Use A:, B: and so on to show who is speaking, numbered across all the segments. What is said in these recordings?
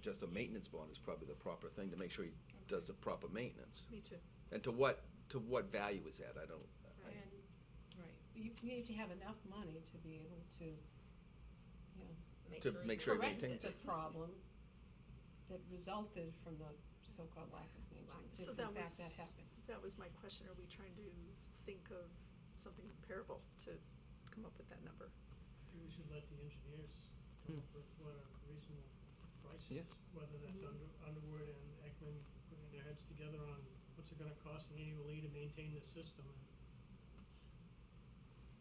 A: just a maintenance bond is probably the proper thing to make sure he does the proper maintenance.
B: Me too.
A: And to what, to what value is that? I don't, I-
B: And, right, you you need to have enough money to be able to, you know,
A: to make sure he
B: correct
A: maintains
B: the
A: it.
B: problem that resulted from the so-called lack of maintenance,
C: So
B: if in
C: that
B: fact
C: was-
B: that happened.
C: That was my question, are we trying to think of something comparable to come up with that number?
D: Maybe we should let the engineers come up with what a reasonable price
A: Yeah.
D: is, whether that's Under, Underwood and Ekman putting their heads together on what's it gonna cost annually to maintain this system and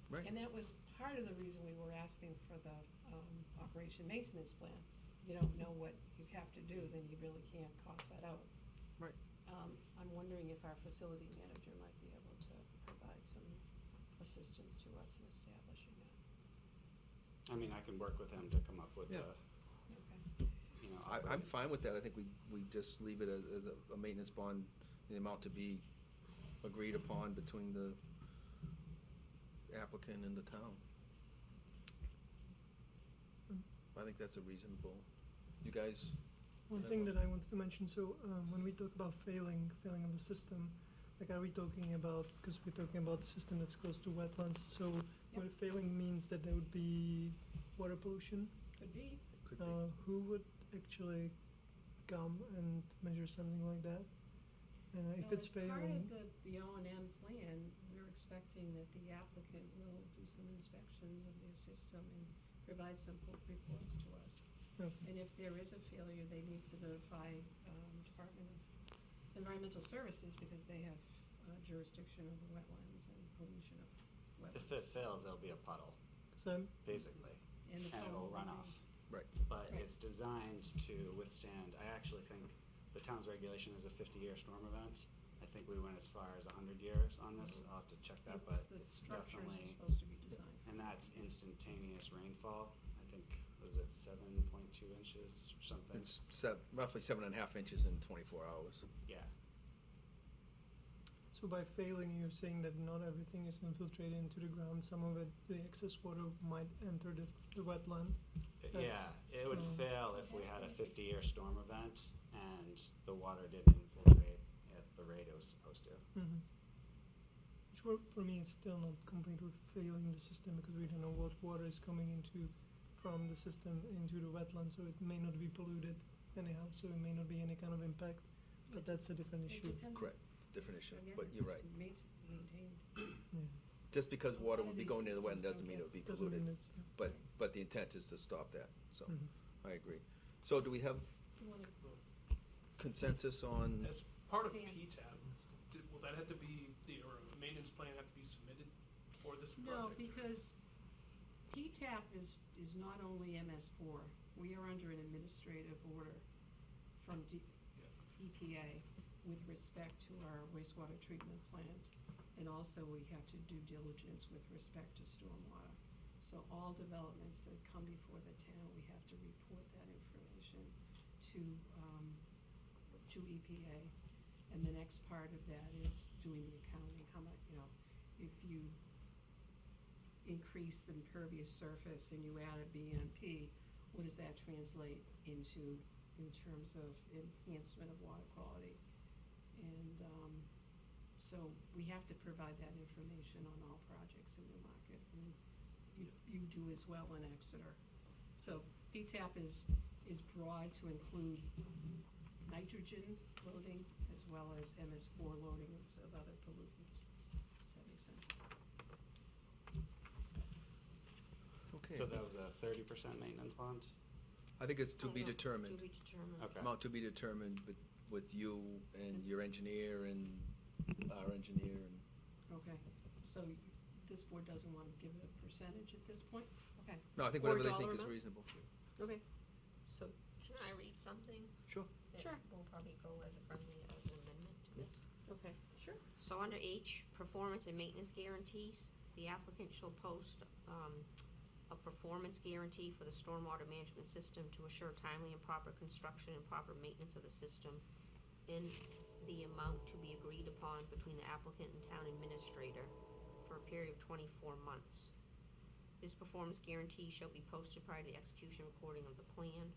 A: Right.
B: And that was part of the reason we were asking for the, um, operation maintenance plan. You don't know what you have to do, then you really can't cost that out.
A: Right.
B: Um, I'm wondering if our facility manager might be able to provide some assistance to us in establishing that.
E: I mean, I can work with him to come up with
A: Yeah.
E: a,
B: Okay.
E: you know.
A: I, I'm
E: operating-
A: fine with that. I think we, we just leave it as, as a, a maintenance bond, the amount to be agreed upon between the applicant and the town. I think that's a reasonable, you guys,
F: One
A: Yeah.
F: thing that I wanted to mention, so um, when we talk about failing, failing of the system, like are we talking about, because we're talking about a system that's close to wetlands, so what failing means that there would be water pollution?
B: Could be.
A: could
F: Uh,
A: be,
F: who would actually come and measure something like that? And if
B: Well,
F: it's
B: as Part of
F: failing,
B: the, the O and M plan, we're expecting that the applicant will do some inspections of their system and provide some po- reports to us.
F: Okay.
B: And if there is a failure, they need to notify, um, Department of Environmental Services because they have uh, jurisdiction over wetlands and pollution of
E: If
B: wetlands.
E: it fails, there'll be a puddle,
F: so I'm,
E: basically,
B: And the
E: and it'll
B: phone
E: run
B: will be-
E: off.
A: Right.
E: But
B: Right.
E: it's designed to withstand, I actually think the town's regulation is a fifty-year storm event. I think we went as far as hundred years on this,
A: Mm-hmm.
E: I'll have to check that, but
B: It's, the
E: it's
B: structures are
E: definitely,
B: supposed to be designed.
E: and that's instantaneous rainfall. I think, was it seven point two inches or something?
A: it's sev- roughly seven and a half inches in twenty-four hours.
E: Yeah,
F: so by failing, you're saying that not everything is infiltrated into the ground, some of it, the excess water might enter the, the wetland.
E: yeah,
F: That's-
E: it would
F: um,
E: fail if we had a fifty-year storm event and the water didn't infiltrate at the rate it was supposed to.
F: Mm-hmm. Which for, for me is still not completely failing the system because we don't know what water is coming into from the system into the wetland, so it may not be polluted anyhow, so it may not be any kind of impact. But that's a
B: It
F: different issue.
B: depends.
A: Correct, different issue,
B: Again,
A: but you're right.
B: it's maint- maintained.
F: Yeah.
A: Just because water would
B: One of
A: be
B: these
A: going near the wetland
B: systems
A: doesn't mean it
B: don't get-
A: would be
F: Doesn't mean
A: polluted,
F: it's
A: but, but the intent is to stop that, so,
F: Mhm.
A: I agree. So do we have
B: You wanna-
A: consensus on,
G: As part of
B: Dan.
D: E
G: PTAB, did, will that have to be, the, or a maintenance plan have to be submitted for this
B: No,
G: project?
B: because PTAP is, is not only MS four, we are under an administrative order from D- EPA with respect to our wastewater treatment plant. And also we have to do diligence with respect to stormwater. So all developments that come before the town, we have to report that information to, um, to EPA. And the next part of that is doing the accounting, how much, you know, if you increase the impervious surface and you add a BMP, what does that translate into in terms of enhancement of water quality? And, um, so we have to provide that information on all projects in Newmarket, and you, you do as well in Exeter. So PTAP is, is broad to include nitrogen loading as well as MS four loadings of other pollutants. Does that make sense?
A: okay,
E: So that was a thirty percent maintenance bond?
A: I think it's to be determined.
H: To be determined.
E: Okay.
A: Amount to be determined with, with you and your engineer and our engineer and,
B: Okay, so this board doesn't want to give a percentage at this point? Okay,
A: no, I think
B: Or
A: whatever they
B: dollar
A: think is
B: amount?
A: reasonable.
B: okay, so,
H: Can I read something?
A: Sure.
H: that
B: Sure.
H: Will probably go as a friendly, as an amendment to this.
B: okay, sure.
H: So under H, performance and maintenance guarantees, the applicant shall post, um, a performance guarantee for the stormwater management system to assure timely and proper construction and proper maintenance of the system in the amount to be agreed upon between the applicant and town administrator for a period of twenty-four months. This performance guarantee shall be posted prior to the execution and recording of the plan.